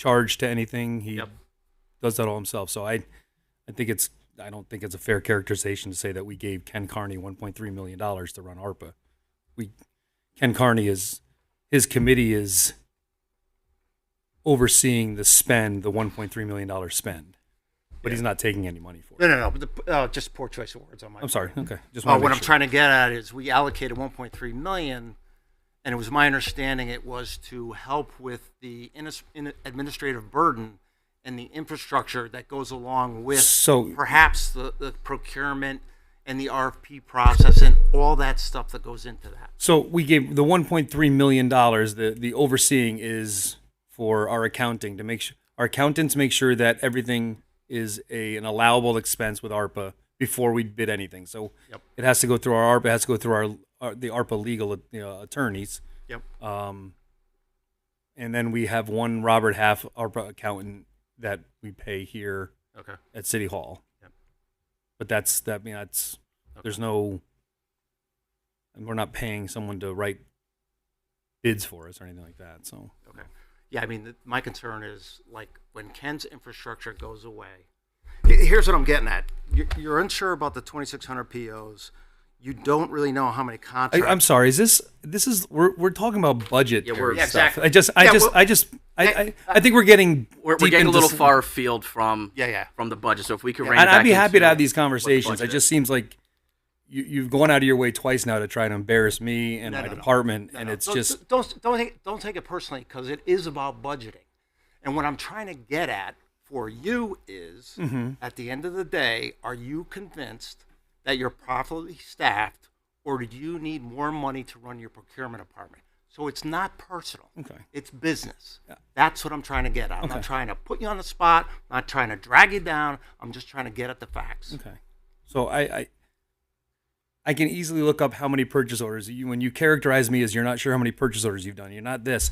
charged to anything. He Yep. does that all himself. So I, I think it's I don't think it's a fair characterization to say that we gave Ken Carney 1.3 million dollars to run ARPA. We Ken Carney is his committee is overseeing the spend, the 1.3 million dollar spend, but he's not taking any money for it. No, no, no. But the, uh, just poor choice of words on my. I'm sorry. Okay, just Oh, wanna what make I'm sure. trying to get at is we allocated 1.3 million, and it was my understanding it was to help with the inis- in- administrative burden and the infrastructure that goes along with So- perhaps the, the procurement and the RFP process and all that stuff that goes into that. So we gave the 1.3 million dollars. The the overseeing is for our accounting to make sure our accountants make sure that everything is a an allowable expense with ARPA before we bid anything. So Yep. it has to go through our ARPA. It has to go through our, our the ARPA legal uh, you know, attorneys. Yep. Um, and then we have one Robert Half ARPA accountant that we pay here Okay. at City Hall. Yep. But that's that. I mean, that's there's no. And we're not paying someone to write bids for us or anything like that. So Okay. Yeah, I mean, th my concern is like when Ken's infrastructure goes away. he- Here's what I'm getting at. You're, you're unsure about the 2,600 POs. You don't really know how many I, contracts. I'm sorry. Is this this is we're we're talking about budget? Yeah, we're- stuff. Exactly. I just I Yeah, just well- I just I, Hey, I, I think we're getting uh, We're, we're deep getting a into little some- far afield from Yeah, yeah. from the budget. So if we could, Yeah. rein I'd, it I'd back be happy into to have these what the conversations. It budget just is. seems like you, you've gone out of your way twice now to try to embarrass me and No, my no, no. department, and No, no. it's Don't- just don't don't take, don't take it personally because it is about budgeting. And what I'm trying to get at for you is, Mm-hmm. at the end of the day, are you convinced that you're properly staffed, or do you need more money to run your procurement department? So it's not personal. Okay. It's business. That's what I'm trying to get at. I'm Okay. not trying to put you on the spot. I'm not trying to drag you down. I'm just trying to get at the facts. Okay. So I, I I can easily look up how many purchase orders you when you characterize me as you're not sure how many purchase orders you've done. You're not this.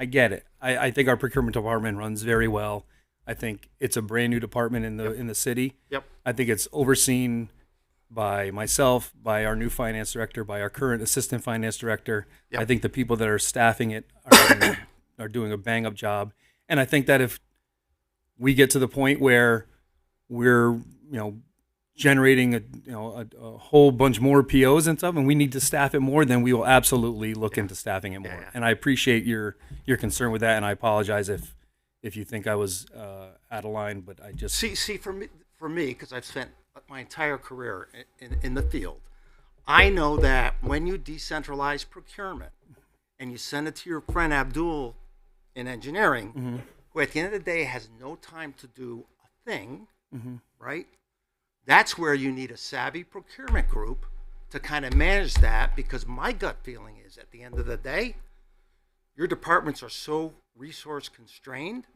I get it. I, I think our procurement department runs very well. I think it's a brand new department in the in the city. Yep. I think it's overseen by myself, by our new finance director, by our current assistant finance director. I think the people that are staffing it are doing, are doing a bang up job. And I think that if we get to the point where we're, you know, generating a you know a, a whole bunch more POs and stuff, and we need to staff it more, then we will absolutely look into staffing it more. yeah. And I appreciate your your concern with that, and I apologize if if you think I was uh, out of line, but I just See, see, for me, for me, because I've spent my entire career in, in, in the field, I know that when you decentralize procurement and you send it to your friend Abdul in engineering, Mm-hmm. who at the end of the day has no time to do a thing, Mm-hmm. right? That's where you need a savvy procurement group to kind of manage that because my gut feeling is at the end of the day, your departments are so resource constrained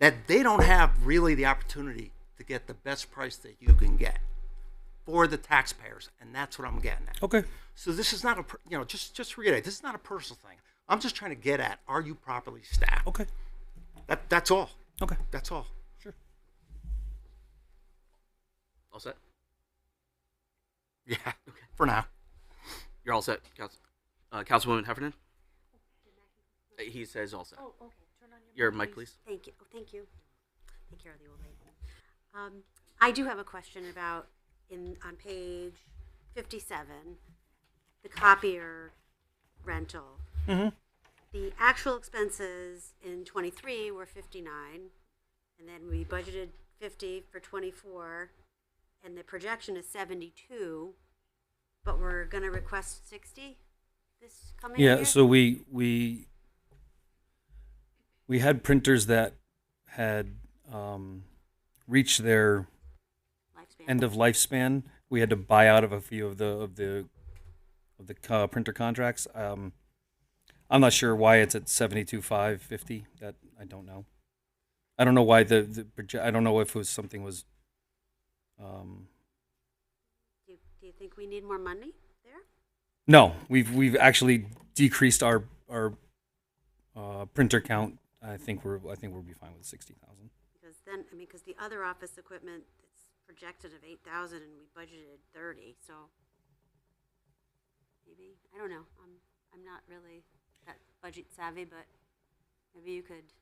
that they don't have really the opportunity to get the best price that you can get for the taxpayers, and that's what I'm getting at. okay. So this is not a per- you know just just reiterate this is not a personal thing. I'm just trying to get at are you properly staffed? Okay. That that's all. Okay. That's all. Sure. all set. Yeah. For now. You're all set, Council, uh, Councilwoman Heffernan. Uh, He says all set. Oh, okay. Turn on Your your, mic, please. Thank you. Oh, thank you. Take care of the old lady. Um, I do have a question about in on page fifty-seven, the copier rental. The actual expenses in twenty-three were fifty-nine, and then we budgeted fifty for twenty-four, and the projection is seventy-two, but we're gonna request sixty this coming year? Yeah, so we we we had printers that had um, reached their Lifespan. end of lifespan. We had to buy out of a few of the of the of the co- printer contracts. Um, I'm not sure why it's at seventy two five fifty. That I don't know. I don't know why the, the proje- I don't know if it was something was. Um, Do you, do you think we need more money there? No, we've we've actually decreased our our uh, printer count. I think we're I think we'll be fine with sixty thousand. Because then, I mean, because the other office equipment, it's projected of eight thousand and we budgeted thirty, so maybe, I don't know, I'm, I'm not really that budget savvy, but maybe you could